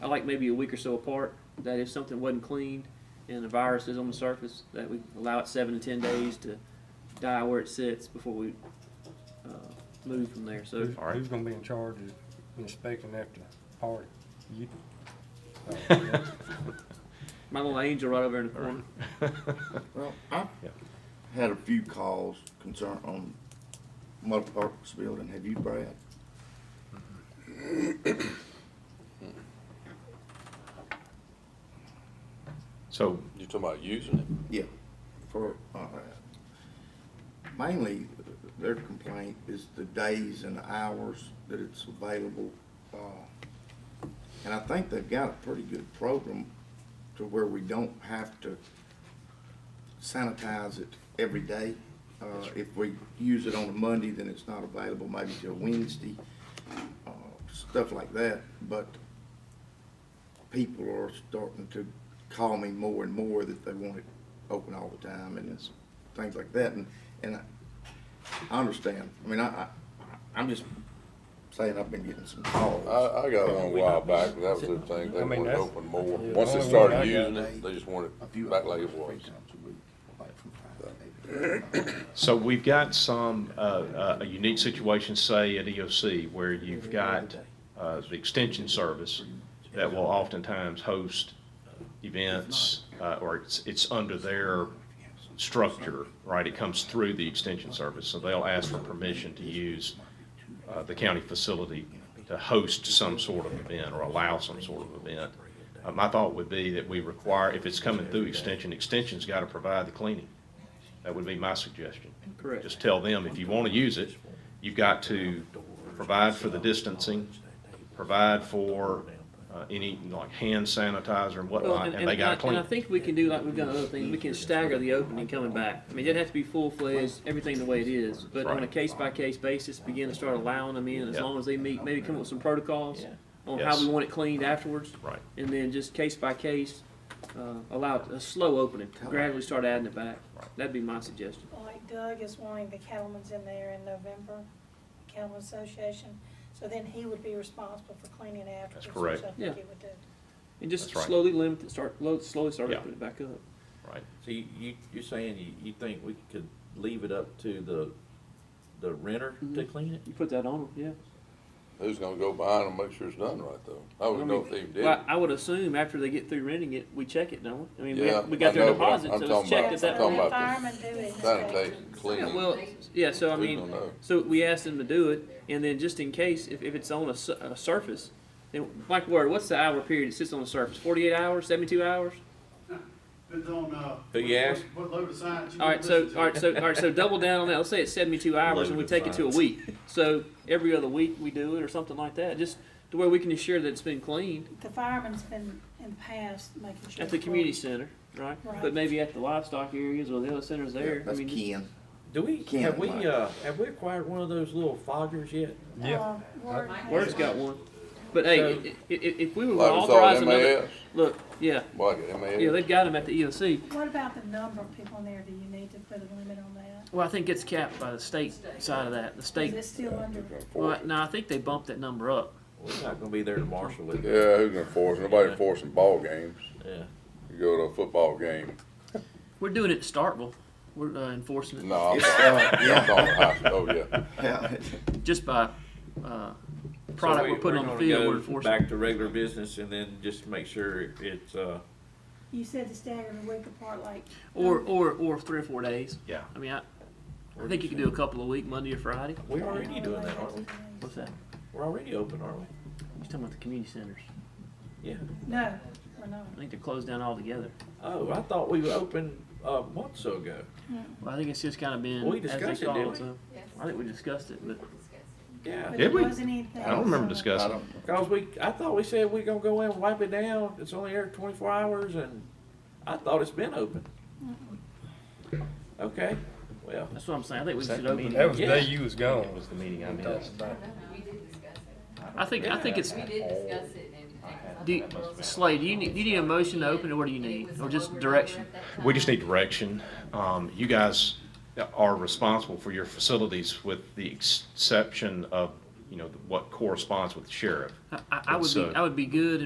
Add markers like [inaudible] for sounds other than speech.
I like maybe a week or so apart, that if something wasn't cleaned and the virus is on the surface, that we allow it seven to ten days to die where it sits before we, uh, move from there, so. Who's, All right. who's gonna be in charge of inspecting after the party? You? My little angel right over in the corner. Well, I've Yep. had a few calls concern on Mother Parks building. Have you, Brad? So, You're talking about using it? Yeah. For, uh, mainly, their complaint is the days and hours that it's available. uh, And I think they've got a pretty good program to where we don't have to sanitize it every day. Uh, If we use it on a Monday, then it's not available maybe till Wednesday, uh, stuff like that. But people are starting to call me more and more that they want it open all the time and it's things like that. And, and I, I understand. I mean, I, I, I'm just saying I've been getting some calls. I, I got one a while back, but that was the thing, I they mean, wanted to that's- open more. yeah, Once the only one they I started got, using they- it, they just wanted A it few back hours, like it three was. times a week, like from five to eight. so we've got some, uh, uh, a unique situation, say, at EOC, where you've got, uh, the extension service that will oftentimes host events, uh, or it's, it's under their structure, right? It comes through the extension service, so they'll ask for permission to use, uh, the county facility to host some sort of event or allow some sort of event. Uh, my thought would be that we require, if it's coming through extension, extension's gotta provide the cleaning. That would be my suggestion. Correct. Just tell them, if you wanna use it, you've got to provide for the distancing, provide for, uh, any, like, hand sanitizer and Well, whatnot, and they gotta clean. And I think we can do like we've done other things, we can stagger the opening coming back. I mean, it doesn't have to be full-fledged, everything the way it is, but on a Right. case-by-case basis, begin to start allowing them in as Yeah. long as they meet, maybe come up with some protocols on how Yes. we want it cleaned afterwards. Right. And then just case-by-case, uh, allow it- a slow opening, gradually start adding it back. That'd be my suggestion. Well, Like Doug is wanting the cattlemen's in there in November, Cattlemen Association, so then he would be responsible for cleaning after. That's correct. Yeah. he would do. And just That's right. slowly limit it, start, low- slowly start Yeah. opening it back up. Right, So you, you, you're saying you, you think we could leave it up to the, the renter to clean it? You put that on them, yeah. Who's gonna go behind and make sure it's done right though? I I would know mean, if they even did. Well, it. I would assume after they get through renting it, we check it, don't we? I mean, we, Yeah, have- we got I their know, but I'm- deposit, I'm so it's talking checked at about- I'm that talking point. about the Firemen do it. Sanitation, Yeah, cleaning. well, yeah, so I We mean, don't know. so we asked them to do it, and then just in case, if, if it's on a, su- a surface, then, like, where, what's the hour period it sits on the surface? Forty-eight hours, seventy-two hours? Depends on, uh. Who you what- ask? What load of science you. All right, so, all right, so, all right, so double down on that. Let's say it's seventy-two hours and we take it to a week. So every other week we do it or something like that, just to where we can ensure that it's been cleaned The fireman's been in the past making sure. at the for- community center, right? But Right. maybe at the livestock areas or the other centers there. I That's mean, just- Ken. Do we, Can't, have we, Mike. uh, have we acquired one of those little foggers yet? Yeah. Uh, Word. Word's got one. But hey, So- i- i- i- if we were Like gonna it's all authorize another, MAS, look, yeah, like it, MAS. yeah, they've got them at the E EOC. What about the number of people in there? Do you need to put a limit on that? Well, I think it's capped by the state side of that, the Is state, it still under, well, no, I think they bumped that number up. We're not gonna be there to marshal it. Yeah, who's gonna force, nobody forcing ball games. Yeah. You go to a football game, We're doing it at Starkville, we're uh, enforcing it, no, I'm It's, talking, uh, I'm yeah, talking high school, Oh, yeah. [laughs] yeah. just by, uh, So product we- we're putting on the gonna field, go we're enforcing. it. Back to regular business and then just make sure it's, uh, you said to stagger a week apart like. Or, or, or three or four days. yeah. I mean, I, I think you could do a couple a week, Monday or Friday. we're already doing that, aren't we? What's that? We're already open, aren't we? You're talking about the community centers. Yeah. No, we're not. I think they're closed down altogether. Oh, I thought we were open, uh, months ago. Well, I think it's just kinda been. as We they discussed it, call didn't we? so- I think we discussed it, but Yeah. But Did it we? wasn't anything I don't remember solid. I discussing. don't, Cause we, I thought we said we gonna go in and wipe it down, it's only there twenty-four hours, and I thought it's been open. Okay, well, that's what I'm saying. I think we should open. That was it. the day you was gone. the meeting I We did discuss it. I think, I think it's, We did discuss it and. do, you- Slade, do you need, do you need a motion to open it? What do you need? Or just direction? We just need direction. Um, you guys are responsible for your facilities with the exception of, you know, what corresponds with the sheriff. uh, I, I would be, I would be good and